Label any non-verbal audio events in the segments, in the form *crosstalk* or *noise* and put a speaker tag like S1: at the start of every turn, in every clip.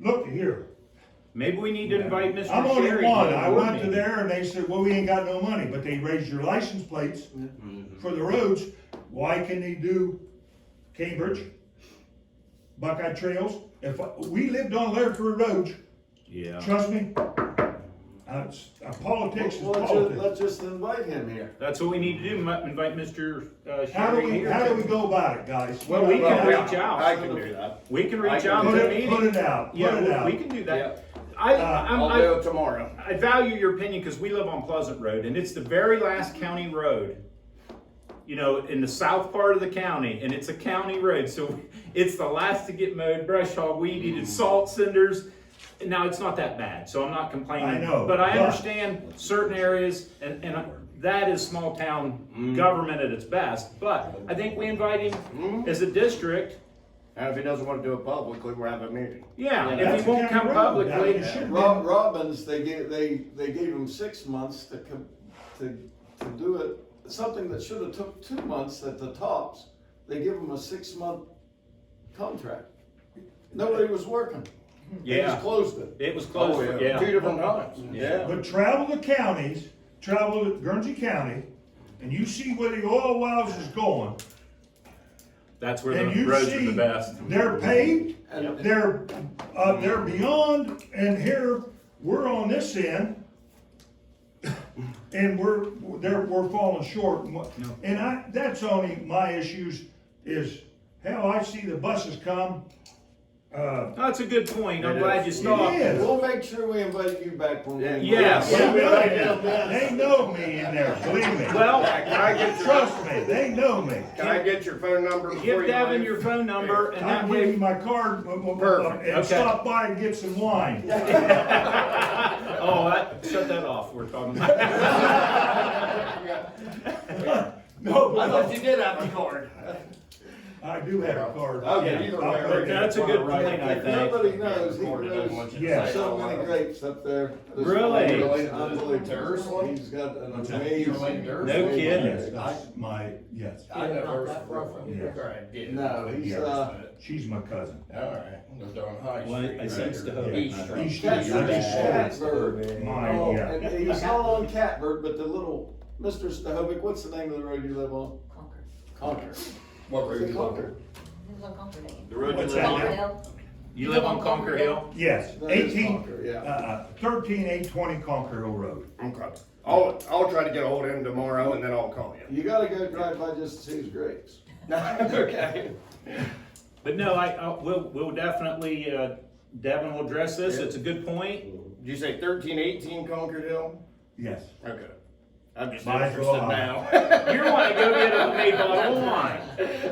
S1: look here,
S2: Maybe we need to invite Mr.
S1: I'm only
S2: Sherry.
S1: one,
S2: the
S1: I
S2: board
S1: went to
S2: meeting.
S1: there and they said, well, we ain't got no money, but they raised your license plates for the roads, why can they do Cambridge? Buckeye Trails, if, I- we lived on Lairford Road,
S2: Yeah,
S1: trust me, uh, it's- uh, politics is
S3: Well, let's just,
S1: politics.
S3: let's just invite him here.
S2: that's what we need to do, mu- invite Mr. uh,
S1: How do
S2: Sherry
S1: we,
S2: here.
S1: how do we go about it, guys?
S2: Well, we can
S1: Well,
S2: reach out.
S4: I can do that.
S2: We can
S4: I
S2: reach
S4: can
S2: out
S4: do
S2: to
S1: that.
S2: the
S1: Put it-
S2: meeting.
S1: put it out, put
S2: Yeah,
S1: it
S2: we-
S1: out.
S2: We can do
S4: Yeah.
S2: that. I,
S1: Uh,
S2: I'm,
S4: I'll do it
S2: I,
S4: tomorrow.
S2: I value your opinion, cause we live on Pleasant Road, and it's the very last county road. You know, in the south part of the county, and it's a county road, so *laughs* it's the last to get mowed, brush hog, weed
S1: Mm.
S2: eated, salt cinders. Now, it's not that bad, so I'm not complaining.
S1: I know,
S2: But I
S1: but-
S2: understand certain areas, and, and I- that is small
S1: Mm.
S2: town government at its best, but I think we invite
S1: Mm.
S2: him as a district,
S4: And if he doesn't want to do it publicly, we're having a meeting.
S2: Yeah,
S1: that's
S2: if
S1: a
S2: he won't
S1: county
S2: come
S1: road. I mean,
S2: publicly,
S1: it should've
S3: Rob,
S1: been-
S3: Robbins, they gave, they, they gave him six months to com to, to do it, something that should have took two months at the tops, they give him a six-month contract. Nobody was working. They
S2: yeah,
S3: just closed it.
S2: it was close,
S4: Oh, Mm-hmm.
S2: yeah.
S4: Two different times. Yeah.
S1: But travel the counties, travel to Guernsey County, and you see where the oil wells is going,
S2: That's where
S1: and
S2: the
S1: you
S2: roads are the
S1: see
S2: best.
S1: they're paved,
S3: Yep.
S1: they're, uh, they're beyond, and here, we're on this end, *coughs* and we're, they're, we're falling short. and what- And I, that's only my issues is, hell, I see the buses come, uh,
S2: That's a good point, I'm
S4: It
S2: glad
S4: is.
S2: you
S1: It
S2: stopped.
S1: is.
S3: We'll make sure we invite you back when we.
S2: Yes.
S1: they
S2: Yeah,
S1: know me, they know me in there, believe me.
S2: Well,
S4: Can *laughs* I get your,
S1: Trust me, they know me.
S4: can I get your phone number? before
S2: give
S4: you
S2: Devin
S4: leave?
S2: your phone number and that
S1: I'll give you
S2: way,
S1: my card uh, uh, uh,
S4: Perfect,
S1: and
S2: okay.
S1: stop by and get some wine.
S2: oh, that, shut that off, we're talking about.
S1: *laughs* No,
S4: I thought
S1: no,
S4: you did have the card.
S1: I do have a card.
S4: Okay, either way,
S1: I'll
S4: we're
S1: put that-
S2: That's a good point, I
S3: If
S2: think.
S3: nobody knows, he
S4: Florida doesn't want
S3: grows
S4: you to
S1: Yeah.
S4: say
S3: so
S4: it.
S3: many grapes up there. This
S2: Really?
S3: is
S2: Related
S4: to- to
S3: Unbelievable.
S4: Ursula?
S3: He's got an
S4: that? You're
S3: amazing.
S4: related to
S2: Ursula? No
S1: Yes,
S2: kidding.
S1: that's my, yes.
S4: I
S5: Yeah,
S4: know
S5: not that far
S4: Ursula.
S5: from
S1: here.
S4: All right, yeah.
S3: No, he's,
S1: Yeah.
S3: uh,
S1: She's my cousin.
S4: All right, we're down High
S2: Well, I-
S4: Street.
S2: I sensed the hope.
S4: East
S1: Yeah.
S4: Street.
S1: East
S3: that's
S1: Street.
S3: a
S1: That's
S3: catbird.
S1: Mine,
S3: Oh,
S1: yeah.
S3: and he's not on catbird, but the little, Mr. Stahovic, what's the name of the road you live on?
S5: Concord.
S3: Concord.
S4: What were
S3: Is it
S4: you talking
S3: Concord?
S5: This is on Concord Lane.
S4: The road you
S1: What's
S4: live
S1: that
S4: on?
S1: now?
S5: Hill.
S2: You live on Conquer Hill?
S1: Yes,
S3: That is
S1: eighteen,
S3: Concord,
S1: uh,
S3: yeah.
S1: uh, thirteen eight twenty Conquer Hill Road.
S4: Okay. I'll, I'll try to get ahold of him tomorrow and then I'll call you.
S3: You gotta go drive by just to see his grapes. *laughs*
S4: Okay.
S2: But no, I, I, we'll, we'll definitely, uh, Devin will address this, it's a good point.
S4: Did you say thirteen eighteen Concord Hill?
S1: Yes.
S4: Okay. I'm just
S1: Might as well.
S4: interested now.
S2: You're wanting to go get a made bottle of wine.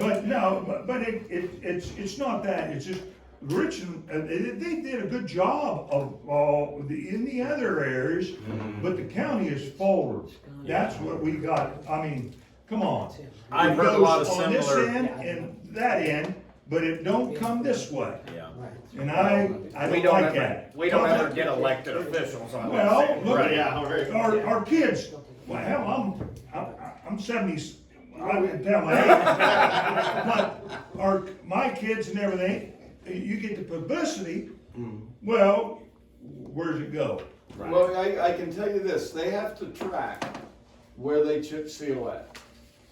S1: But no, but- but it, it, it's, it's not that, it's just Richmond, uh, they, they did a good job of, all the, in the other areas, but the county is forward. That's what we got, I mean, come on.
S2: I've
S1: It
S2: heard a lot of
S1: goes on this
S2: similar-
S1: end And that end, but it don't come this way,
S2: Yeah.
S1: and I, I
S4: We
S1: don't
S4: don't
S1: like
S4: ever,
S1: that.
S4: we don't ever get elected officials on this.
S1: Well, look,
S4: Right,
S1: at
S4: yeah.
S1: our, our kids, well, hell, I'm, I'm, I'm seventies, I wouldn't tell my
S4: *laughs*
S1: age. But our, my kids and everything, you get the publicity, well, where's it go?
S3: Well, I, I can tell you this, they have to track where they chip seal at.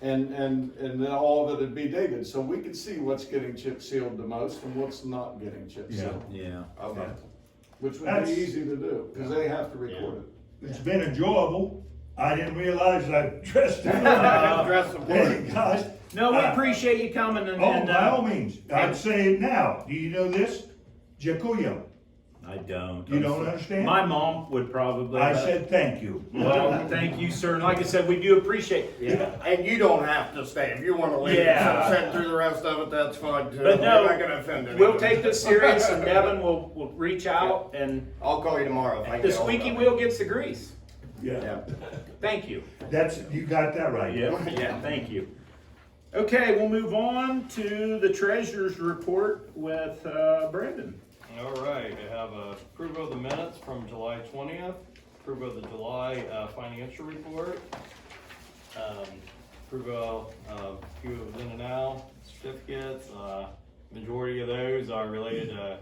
S3: And, and, and then all of it'd be dated, so we could see what's getting chip sealed the most and what's not getting chip
S1: Yeah.
S3: sealed.
S2: Yeah.
S4: Okay.
S3: Which would be
S1: That's-
S3: easy to do, cause they have to record
S1: It's been enjoyable, I didn't realize I dressed
S4: *laughs*
S1: it up.
S4: Dress the part.
S1: Hey, guys.
S2: No, we
S4: Ah.
S1: Uh,
S2: appreciate you coming and,
S1: Oh,
S2: and,
S1: by all
S2: uh,
S1: means, I'd say it now, do you know this? Jacuyo,
S2: I don't.
S1: you don't understand?
S2: My mom would probably. uh,
S1: I said, thank you.
S2: Well, thank you, sir. And like I said, we do appreciate.
S4: Yeah. And you don't have to stay. If you wanna leave,
S2: Yeah.
S4: and sit through the rest of it, that's fine too.
S2: But no,
S4: You're not gonna offend anyone.
S2: We'll take this serious and Devin will, will reach out and
S4: I'll call you tomorrow if I
S2: the
S4: can. get ahold of
S2: squeaky
S4: him.
S2: wheel gets the grease.
S1: Yeah,
S4: Yeah.
S2: Thank you.
S1: that's, you got that right.
S2: Yeah, thank you. Okay, we'll move on to the treasurer's report with, uh, Brandon.
S6: All right, I have uh, approval of the minutes from July twentieth, approval of the July uh, financial report, um, approval of a few of the now certificates. uh, Majority of uh, those are related to